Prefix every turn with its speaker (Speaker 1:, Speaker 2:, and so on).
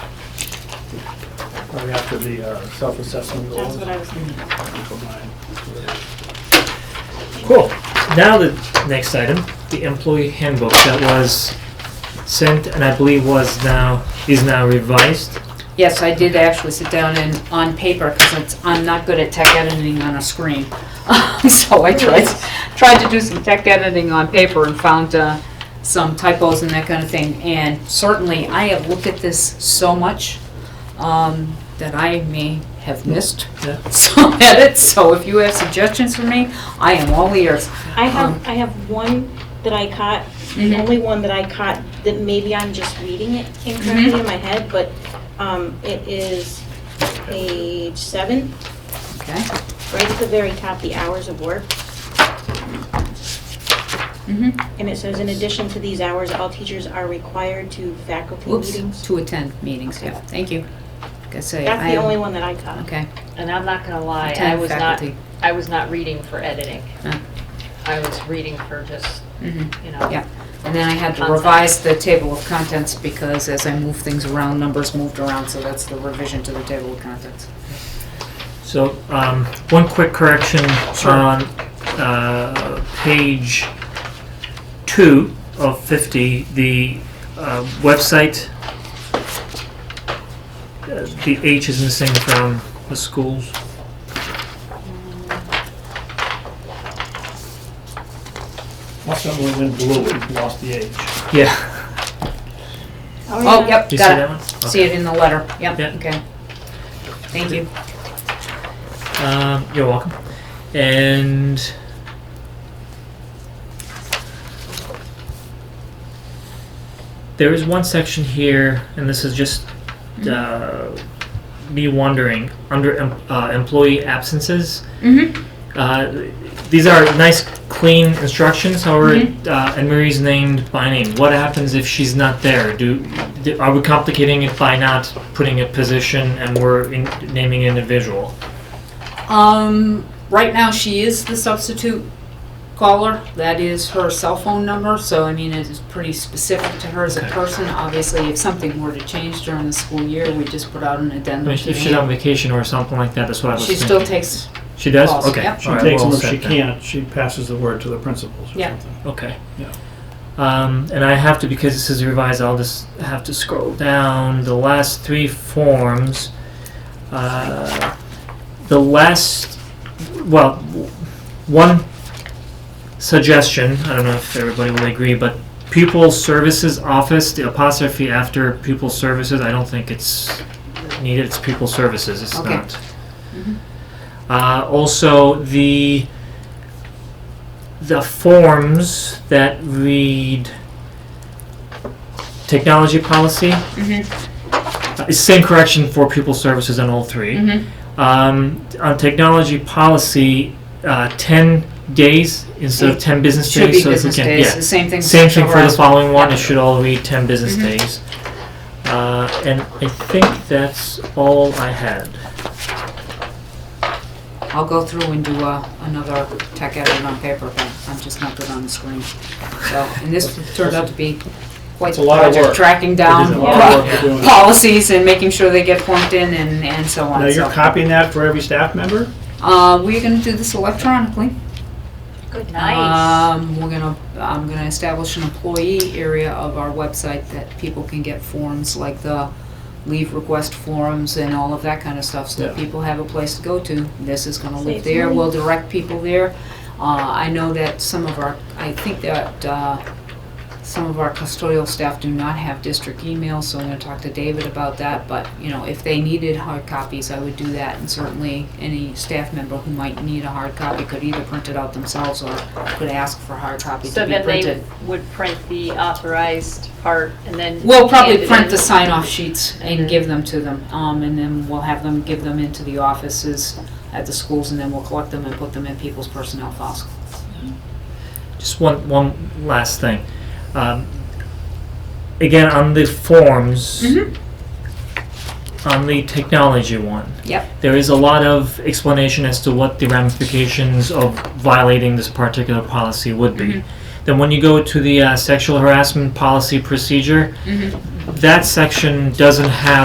Speaker 1: right after the uh, self-assessment
Speaker 2: That's
Speaker 1: goals.
Speaker 2: what I was thinking.
Speaker 3: Cool. Now the next item, the employee handbook that was sent and I believe was now, is now revised.
Speaker 2: Yes, I did actually sit down and, on paper, because I'm not good at tech editing on a screen. So I tried, tried to do some tech editing on paper and found uh, some typos and that kind of thing. And certainly, I have looked at this so much um, that I may have missed
Speaker 3: Yeah.
Speaker 2: some edits. So if you have suggestions for me, I am all ears.
Speaker 4: I have,
Speaker 2: Uh-huh.
Speaker 4: I have one that I caught, the
Speaker 2: Mhm.
Speaker 4: only one that I caught, that maybe I'm just reading it
Speaker 2: Mm-hmm.
Speaker 4: incorrectly in my head, but um, it is page seven,
Speaker 2: Okay?
Speaker 4: right at the very top, the hours of work.
Speaker 2: Mhm.
Speaker 4: And it says, in addition to these hours, all teachers are required to faculty
Speaker 2: Whoops,
Speaker 4: meetings.
Speaker 2: to attend meetings, yeah, thank you. Like I say, I
Speaker 4: That's the only
Speaker 2: am,
Speaker 4: one that I caught.
Speaker 2: okay.
Speaker 5: And I'm not gonna lie, I
Speaker 2: Attend
Speaker 5: was not,
Speaker 2: faculty.
Speaker 5: I was not reading for editing.
Speaker 2: Ah.
Speaker 5: I was reading for just,
Speaker 2: Mhm.
Speaker 5: you know.
Speaker 2: Yeah. And then I had to
Speaker 5: Content.
Speaker 2: revise the table of contents because as I move things around, numbers moved around, so that's the revision to the table of contents.
Speaker 3: So, um, one quick correction
Speaker 2: Sure.
Speaker 3: on, uh, page two of fifty, the, uh, website. uh, The H is missing from the schools.
Speaker 1: Last time we went blue, we lost the age.
Speaker 3: Yeah,
Speaker 2: Oh, yep,
Speaker 3: you see that
Speaker 2: got
Speaker 3: one?
Speaker 2: it. See it in the letter. Yep,
Speaker 3: Yeah.
Speaker 2: okay. Thank you.
Speaker 3: Um, you're welcome. And there is one section here, and this is just uh, me wondering under em- uh, employee absences.
Speaker 2: Mm-hmm.
Speaker 3: Uh, these are nice, clean instructions. However, uh, Anne Marie's named by name. What happens if she's not there? Do, do are we complicating it by not putting a position and we're in, naming an individual?
Speaker 2: Um, right now, she is the substitute caller. That is her cell phone number, so I mean, it is pretty specific to her as a
Speaker 3: Okay.
Speaker 2: person. Obviously, if something were to change during the school year, we just put out an
Speaker 3: I
Speaker 2: addendum.
Speaker 3: mean,
Speaker 2: to
Speaker 3: if
Speaker 2: the
Speaker 3: she's on vacation or something like that, that's what I was
Speaker 2: She
Speaker 3: thinking.
Speaker 2: still takes,
Speaker 3: She does?
Speaker 2: calls,
Speaker 3: okay.
Speaker 2: yep.
Speaker 1: She
Speaker 3: all right,
Speaker 1: takes
Speaker 3: well
Speaker 1: them if she
Speaker 3: said then.
Speaker 1: can't, she passes the word to the principals or
Speaker 2: Yeah.
Speaker 1: something.
Speaker 3: Okay.
Speaker 1: Yeah.
Speaker 3: Um, and I have to, because this is revised, I'll just have to scroll down the last three forms. Uh, the last, well, w- one suggestion, I don't know if everybody will agree, but pupil services office, the apostrophe after pupil services, I don't think it's needed, it's pupil services, it's
Speaker 2: Okay.
Speaker 3: not. Uh, also, the the forms that read technology policy
Speaker 2: Mm-hmm.
Speaker 3: uh, it's same correction for pupil services on all 3
Speaker 2: Mm-hmm.
Speaker 3: Um, on technology policy, uh, ten days instead of ten business
Speaker 2: should
Speaker 3: days.
Speaker 2: be
Speaker 3: so
Speaker 2: business
Speaker 3: if we can,
Speaker 2: days,
Speaker 3: yeah,
Speaker 2: the same thing.
Speaker 3: same thing for the
Speaker 2: Around.
Speaker 3: following one.
Speaker 2: Yeah.
Speaker 3: It should all read ten business
Speaker 2: Mhm.
Speaker 3: days. Uh, and I think that's all I had.
Speaker 2: I'll go through and do uh, another tech edit on paper, but I'm just not good on the screen. So, and this turned out to be quite
Speaker 1: It's
Speaker 2: a
Speaker 1: a lot of
Speaker 2: project,
Speaker 1: work.
Speaker 2: tracking
Speaker 3: It
Speaker 2: down
Speaker 3: is a
Speaker 1: lot of
Speaker 2: po-
Speaker 1: work to do it.
Speaker 2: policies and making sure they get formed in and, and so
Speaker 1: Now,
Speaker 2: on,
Speaker 1: you're
Speaker 2: so.
Speaker 1: copying that for every staff member?
Speaker 2: Uh, we're gonna do this electronically.
Speaker 5: Good
Speaker 2: Um, we're gonna, I'm gonna establish an employee area of our website that people can get forms like the leave request forms and all of that kind of stuff, so that
Speaker 1: Yeah.
Speaker 2: people have a place to go to. This is gonna live
Speaker 4: Saves
Speaker 2: there,
Speaker 4: money.
Speaker 2: we'll direct people there. Uh, I know that some of our, I think that, uh, some of our custodial staff do not have district emails, so I'm gonna talk to David about that, but, you know, if they needed hard copies, I would do that, and certainly any staff member who might need a hard copy could either print it out themselves or could ask for hard copies
Speaker 5: So
Speaker 2: to be
Speaker 5: then they
Speaker 2: printed.
Speaker 5: would print the authorized part and then.
Speaker 2: We'll probably
Speaker 5: hand it
Speaker 2: print
Speaker 5: in.
Speaker 2: the sign-off sheets and
Speaker 5: Mhm.
Speaker 2: give them to them, um, and then we'll have them, give them into the offices at the schools, and then we'll collect them and put them in people's personnel files.
Speaker 3: Just one, one last thing. Um, again, on the forms,
Speaker 2: Mhm.
Speaker 3: on the technology one,
Speaker 2: Yep.
Speaker 3: there is a lot of explanation as to what the ramifications of violating this particular policy would be.
Speaker 2: Mhm.
Speaker 3: Then, when you go to
Speaker 5: Mm-hmm.
Speaker 3: the uh, sexual harassment policy procedure,
Speaker 2: Mhm.
Speaker 3: that section doesn't have